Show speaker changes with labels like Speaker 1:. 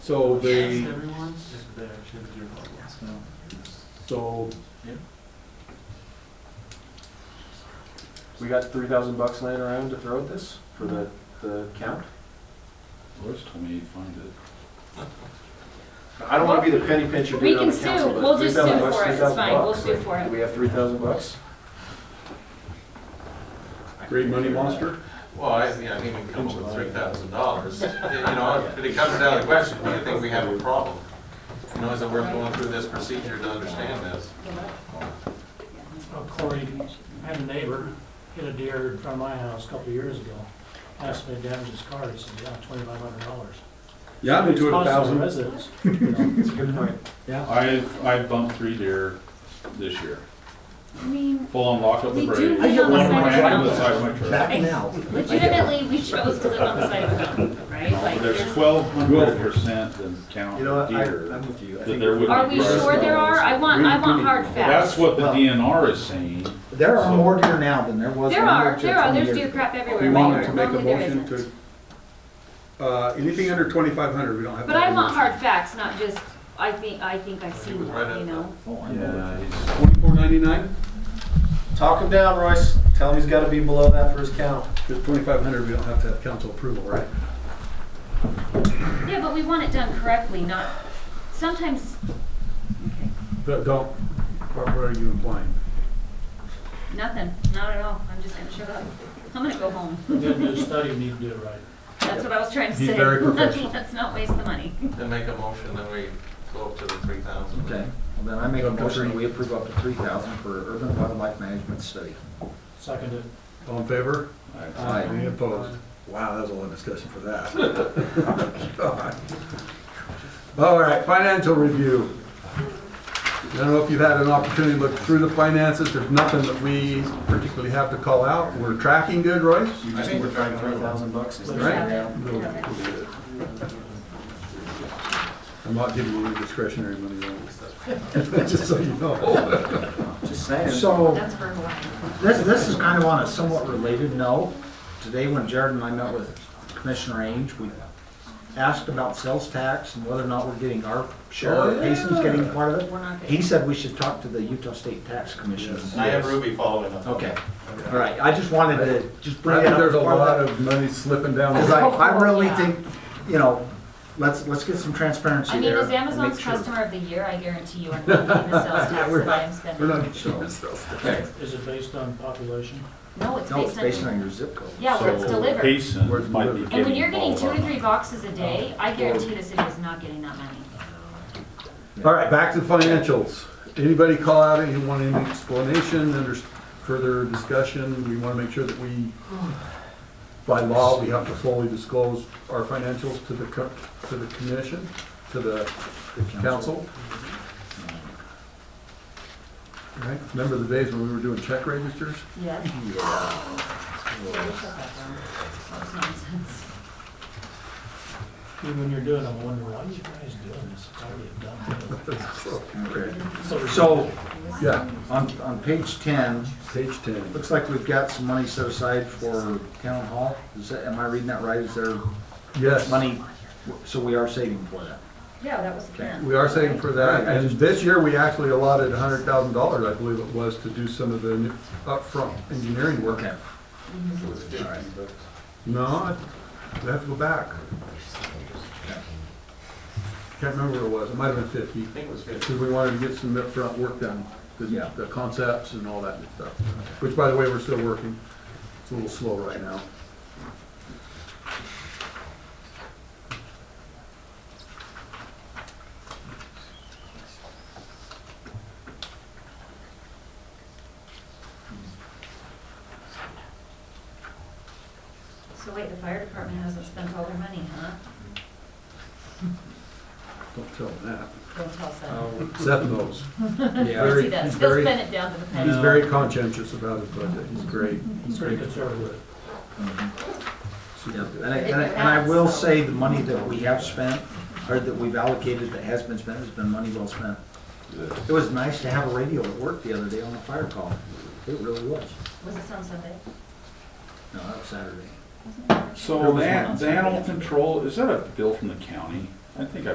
Speaker 1: So
Speaker 2: Ask
Speaker 1: they,
Speaker 2: everyone if they actually have a deer hog license.
Speaker 1: so,
Speaker 3: We got three thousand bucks laying around to throw at this for the, the count.
Speaker 4: Where's twenty-eight funded?
Speaker 3: I don't wanna be the penny pincher
Speaker 5: We
Speaker 3: dude on
Speaker 5: can
Speaker 3: the
Speaker 5: sue,
Speaker 3: council,
Speaker 5: we'll
Speaker 3: but three
Speaker 5: just sue
Speaker 3: thousand bucks,
Speaker 5: for it,
Speaker 3: three
Speaker 5: it's
Speaker 3: thousand
Speaker 5: fine, we'll
Speaker 3: bucks.
Speaker 5: sue for
Speaker 3: Do
Speaker 5: it.
Speaker 3: we have three thousand bucks?
Speaker 1: great money monster?
Speaker 2: Well, I, yeah, I mean, we come up with three thousand dollars, you know, if it comes down to the question, do you think we have a problem? You know, is it worth going through this procedure to understand this?
Speaker 6: Well, Corey, I had a neighbor hit a deer in front of my house a couple of years ago. Asked me to damage his car, he said, yeah, twenty-five hundred dollars.
Speaker 1: Yeah, I've been to it a thousand.
Speaker 6: Residents, you know.
Speaker 3: That's a good point.
Speaker 4: I, I bumped three deer this year,
Speaker 5: I mean,
Speaker 4: full on lock up the
Speaker 5: we
Speaker 4: break.
Speaker 5: do live on
Speaker 4: One
Speaker 5: the
Speaker 4: of them ran
Speaker 5: side
Speaker 4: into
Speaker 5: of
Speaker 4: the
Speaker 5: the
Speaker 4: side
Speaker 5: mountain.
Speaker 4: of my truck.
Speaker 5: Legitimately, we chose to live on the side of the mountain, right? Like,
Speaker 4: There's twelve hundred percent the count
Speaker 3: You know what, I,
Speaker 4: deer
Speaker 3: I'm with you. I
Speaker 4: that
Speaker 3: think
Speaker 4: there
Speaker 3: if-
Speaker 4: would
Speaker 5: Are we sure there are? I want, I want hard
Speaker 4: That's
Speaker 5: facts.
Speaker 4: what the
Speaker 7: Well-
Speaker 4: DNR is saying.
Speaker 7: There are more deer now than there was.
Speaker 5: There
Speaker 7: 100
Speaker 5: are,
Speaker 7: to
Speaker 5: there are,
Speaker 7: 20
Speaker 5: there's
Speaker 7: years
Speaker 5: deer
Speaker 7: ago.
Speaker 5: crap everywhere.
Speaker 1: You want them to
Speaker 5: but
Speaker 1: make a
Speaker 5: normally there
Speaker 1: motion
Speaker 5: isn't.
Speaker 1: to, uh, anything under twenty-five hundred, we don't have. to
Speaker 5: But I
Speaker 1: have a
Speaker 5: want
Speaker 1: motion.
Speaker 5: hard facts, not just, I think, I think I see
Speaker 2: was right
Speaker 5: one,
Speaker 2: at
Speaker 5: you
Speaker 2: the-
Speaker 5: know?
Speaker 7: Oh, I know.
Speaker 4: Yeah, it's-
Speaker 1: Twenty-four ninety-nine,
Speaker 3: Talk him down, Royce. Tell him he's gotta be below that for his count.
Speaker 1: because twenty-five hundred, we don't have to have council approval, right?
Speaker 5: Yeah, but we want it done correctly, not, sometimes, okay,
Speaker 1: But don't, what what are you implying?
Speaker 5: nothing, not at all. I'm just gonna shut up. I'm gonna go home.
Speaker 6: Didn't do a study, you need to do it right.
Speaker 5: That's what I was trying to
Speaker 1: Be
Speaker 5: say.
Speaker 1: very
Speaker 5: Let's-
Speaker 1: professional.
Speaker 5: Let's not waste the money.
Speaker 2: Then make a motion that we go up to the three thousand.
Speaker 7: Okay, well then I make a
Speaker 1: Up to
Speaker 7: motion
Speaker 1: three.
Speaker 7: that we approve up to three thousand for urban wildlife management study.
Speaker 6: Seconded.
Speaker 1: All in favor?
Speaker 7: Aye.
Speaker 1: Any opposed? Wow, that was a lot of discussion for that. God. All right, financial review. I don't know if you've had an opportunity to look through the finances, there's nothing that we particularly have to call out. We're tracking good, Royce?
Speaker 3: You
Speaker 2: I
Speaker 3: just
Speaker 2: think
Speaker 3: need to
Speaker 2: we're
Speaker 3: find
Speaker 2: trying
Speaker 3: three
Speaker 2: to-
Speaker 3: thousand bucks. is
Speaker 6: Right.
Speaker 3: there?
Speaker 5: Have it,
Speaker 1: We'll-
Speaker 5: have it.
Speaker 1: we'll do it. I'm not giving you any discretionary money, Royce. just so you know.
Speaker 7: Just saying. So,
Speaker 5: That's for Hawaii.
Speaker 7: this, this is kind of on a somewhat related note. Today when Jared and I met with Commissioner Ainge, we asked about sales tax and whether or not we're getting our share,
Speaker 1: Oh,
Speaker 7: or Mason's
Speaker 1: yeah.
Speaker 7: getting part of it.
Speaker 5: We're not gonna-
Speaker 7: He said we should talk to the Utah State Tax Commission.
Speaker 2: I have Ruby following up.
Speaker 7: Okay, all right, I just wanted to just bring
Speaker 1: I
Speaker 7: it
Speaker 1: think
Speaker 7: up.
Speaker 1: there's a
Speaker 7: part of that.
Speaker 1: lot of money slipping down.
Speaker 7: Because
Speaker 1: the-
Speaker 7: I, I really
Speaker 5: Oh, Yeah.
Speaker 7: think, you know, let's, let's get some transparency
Speaker 5: I mean,
Speaker 7: there.
Speaker 5: as
Speaker 7: and
Speaker 5: Amazon's
Speaker 7: make sure.
Speaker 5: customer of the year, I guarantee you I'm not paying the sales tax
Speaker 1: we're
Speaker 5: that I'm spending.
Speaker 1: We're not getting ourselves.
Speaker 7: Okay.
Speaker 6: Is it based on population?
Speaker 5: No, it's
Speaker 7: No, it's
Speaker 5: based
Speaker 7: based
Speaker 5: on,
Speaker 7: on your zip code.
Speaker 5: yeah, where it's
Speaker 1: Where's
Speaker 5: delivered.
Speaker 1: it
Speaker 4: Payson might be
Speaker 1: delivered?
Speaker 4: getting.
Speaker 5: And when you're getting
Speaker 4: all
Speaker 5: two
Speaker 4: of
Speaker 5: to
Speaker 4: our
Speaker 5: three boxes a day,
Speaker 1: Oh.
Speaker 5: I guarantee the city is not getting that money.
Speaker 1: All right, back to financials. Anybody call out, anyone want any explanation, under further discussion? We want to make sure that we, by law, we have to fully disclose our financials to the, co- to the commission, to the council. All right, remember the days when we were doing check registers?
Speaker 5: Yes.
Speaker 6: Even when you're doing, them, I wonder why you guys doing this, it's already a done
Speaker 7: Okay.
Speaker 6: deal.
Speaker 7: So,
Speaker 1: Yeah,
Speaker 7: on, on page ten,
Speaker 1: page ten.
Speaker 7: looks like we've got some money set aside for town hall. Is that, am I reading that right? Is there
Speaker 1: Yes.
Speaker 7: money, so we are saving for that?
Speaker 5: Yeah, that was the plan.
Speaker 1: We are saving for that, and this year, we actually allotted hundred thousand dollars, I believe it was, to do some of the new- upfront engineering work.
Speaker 7: Okay.
Speaker 1: No, I- we have to go back. Can't remember what it was, it might have been fifty,
Speaker 2: I think it was fifty.
Speaker 1: because we wanted to get some upfront work done,
Speaker 7: Yeah.
Speaker 1: the, the concepts and all that good stuff. Which, by the way, we're still working, it's a little slow right now.
Speaker 5: So wait, the fire department hasn't spent all their money, huh?
Speaker 1: Don't tell him that.
Speaker 5: Don't tell Seth.
Speaker 1: Seth knows.
Speaker 7: Yeah.
Speaker 1: Oh, very-
Speaker 5: See that,
Speaker 1: he's
Speaker 5: he'll
Speaker 1: very-
Speaker 5: spend it down to the penny.
Speaker 1: He's very conscientious about his budget, he's great,
Speaker 6: It's pretty conservative.
Speaker 1: super
Speaker 7: Yeah,
Speaker 1: good.
Speaker 7: And I, and I, and I will say the money that we have spent, or that we've allocated that has been spent, has been money well spent. It was nice to have a radio at work the other day on a fire call. It really was.
Speaker 5: Was this on Sunday?
Speaker 7: No, that was Saturday.
Speaker 4: So that, the animal control, is that a bill from the county? I think I